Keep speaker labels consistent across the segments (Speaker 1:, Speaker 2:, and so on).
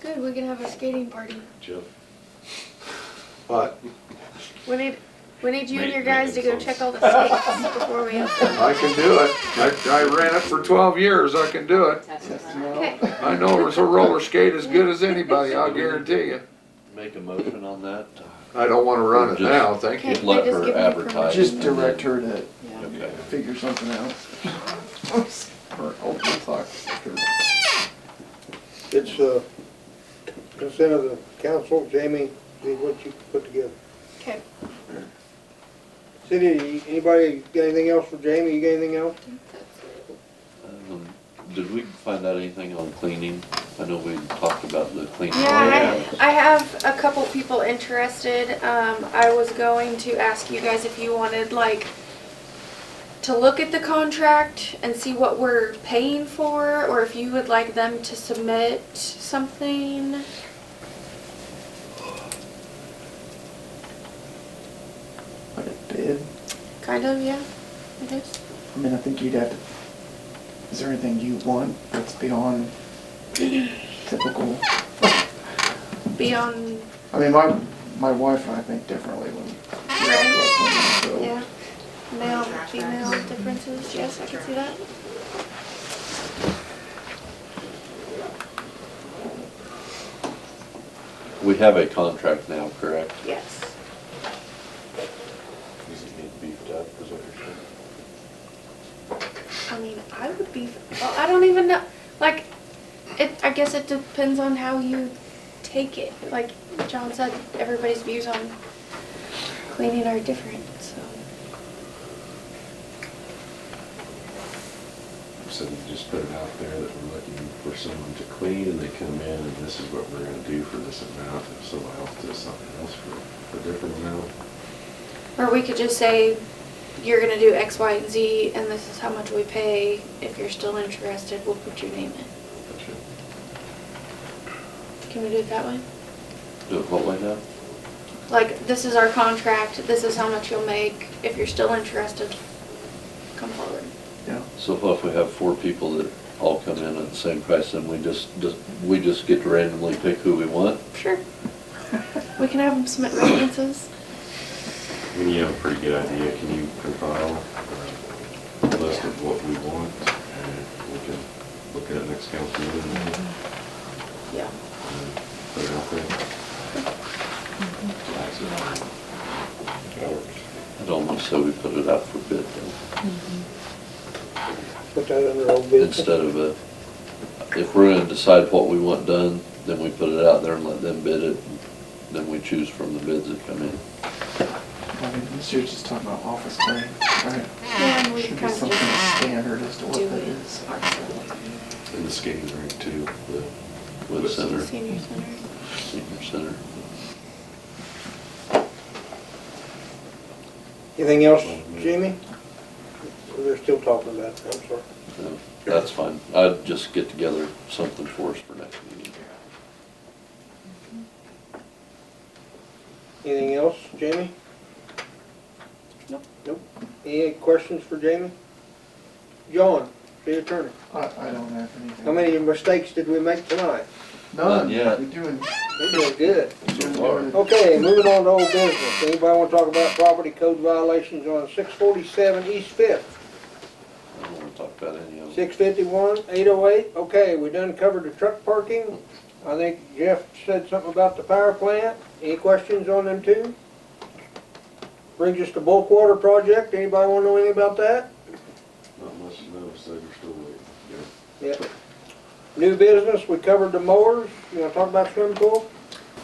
Speaker 1: Good, we can have a skating party.
Speaker 2: Jeff.
Speaker 3: But
Speaker 1: We need, we need you and
Speaker 2: Ma-
Speaker 1: your guys to go
Speaker 2: making
Speaker 1: check all the skates before we open.
Speaker 3: I can do it. I, I ran it for twelve years. I can do it.
Speaker 4: That's
Speaker 5: Yes,
Speaker 4: right.
Speaker 5: no.
Speaker 1: Okay,
Speaker 3: I know it's a roller skate as good as anybody, I'll guarantee you.
Speaker 2: Make a motion on that.
Speaker 3: I don't wanna run it now, thank you.
Speaker 1: can't
Speaker 2: let
Speaker 1: they just
Speaker 2: her
Speaker 1: give me
Speaker 2: advertise.
Speaker 1: permission?
Speaker 5: Just direct her to
Speaker 4: Yeah.
Speaker 2: Okay.
Speaker 5: figure something out. Or oh, open the clock.
Speaker 6: It's uh consent of the council, Jamie, see what you put together.
Speaker 1: Okay,
Speaker 6: City, anybody got anything else for Jamie? You got anything else?
Speaker 2: Um, Did we find out anything on cleaning? I know we talked about the cleaning.
Speaker 1: yeah, I, I have a couple people interested. Um, I was going to ask you guys if you wanted like to look at the contract and see what we're paying for, or if you would like them to submit something.
Speaker 5: Like a bid.
Speaker 1: Kind of, yeah, it is.
Speaker 5: I mean, I think you'd have to, is there anything you want that's beyond typical?
Speaker 1: Beyond,
Speaker 5: I mean, my, my wife and I think differently when.
Speaker 1: right?
Speaker 5: so-
Speaker 1: Yeah. Male, female differences, yes, I can see that.
Speaker 2: We have a contract now, correct?
Speaker 1: Yes.
Speaker 2: Does it need beefed up, is what you're saying?
Speaker 1: I mean, I would be, well, I don't even know, like, it, I guess it depends on how you take it. Like John said, everybody's views on cleaning are different, so.
Speaker 7: So you just put it out there that we're looking for someone to clean, and they come in, and this is what we're gonna do for this amount, if someone else does something else for a different amount.
Speaker 1: Or we could just say, you're gonna do X, Y, and Z, and this is how much we pay. If you're still interested, we'll put your name in.
Speaker 7: that should-
Speaker 1: Can we do it that way?
Speaker 2: Do it what way now?
Speaker 1: Like, this is our contract, this is how much you'll make. If you're still interested, come forward.
Speaker 5: Yeah.
Speaker 2: So if we have four people that all come in at the same price, then we just, just- we just get to randomly pick who we want?
Speaker 1: Sure. We can have them submit references.
Speaker 7: I mean, you have a pretty good idea, can you compile uh, a list of what we want, and we can look at it next council meeting and
Speaker 1: Yeah.
Speaker 7: and put it out there? That's it.
Speaker 6: That works.
Speaker 2: I'd almost say we put it out for bid then,
Speaker 6: Put that under old business.
Speaker 2: instead of a, if we're gonna decide what we want done, then we put it out there and let them bid it, then we choose from the bids that come in.
Speaker 5: I mean, she was just talking about office cleaning, right?
Speaker 1: Yeah, and we
Speaker 5: Should
Speaker 1: kind
Speaker 5: be
Speaker 1: of
Speaker 5: something
Speaker 1: just
Speaker 5: standard as to what
Speaker 1: do
Speaker 5: that
Speaker 1: it
Speaker 5: is.
Speaker 1: ourselves.
Speaker 7: And the skating rink too, the.
Speaker 2: With center,
Speaker 1: Senior center.
Speaker 2: senior center.
Speaker 6: Anything else, Jamie? They're still talking about it, I'm sorry.
Speaker 2: No, That's fine. I'd just get together something for us for next meeting.
Speaker 6: Anything else, Jamie?
Speaker 1: Nope.
Speaker 6: Nope. Any questions for Jamie? John, the attorney,
Speaker 5: I, I don't have anything.
Speaker 6: how many mistakes did we make tonight?
Speaker 5: None.
Speaker 2: Not yet.
Speaker 5: We're doing,
Speaker 6: We're doing good.
Speaker 2: So
Speaker 5: doing
Speaker 2: far.
Speaker 5: good.
Speaker 6: Okay, moving on to old business. Anybody want to talk about property code violations on six forty-seven East Fifth?
Speaker 2: I don't wanna talk about any of it.
Speaker 6: Six fifty-one, eight oh eight, okay, we done covered the truck parking. I think Jeff said something about the power plant. Any questions on them two? Brings us to bulk water project. Anybody want to know anything about that?
Speaker 7: Not much to know, so we're still waiting. Yeah.
Speaker 6: Yep. New business, we covered the mowers. You want to talk about swimming pool?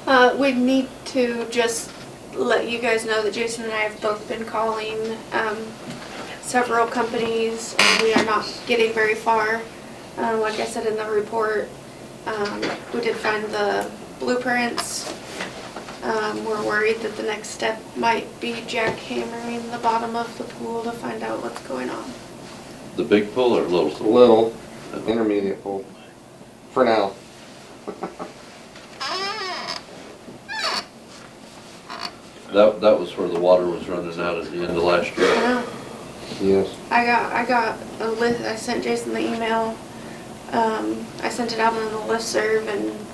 Speaker 1: Uh, we need to just let you guys know that Jason and I have both been calling, um, several companies, and we are not getting very far. Uh, like I said in the report, um, we did find the blueprints. Um, we're worried that the next step might be jackhammering the bottom of the pool to find out what's going on.
Speaker 2: The big pool or little pool?
Speaker 3: Little,
Speaker 2: Okay.
Speaker 3: intermediate pool, for now.
Speaker 2: That, that was where the water was running out at the end of last
Speaker 1: I
Speaker 2: year.
Speaker 1: know.
Speaker 3: Yes.
Speaker 1: I got, I got a list, I sent Jason the email, um, I sent it out on the listserv and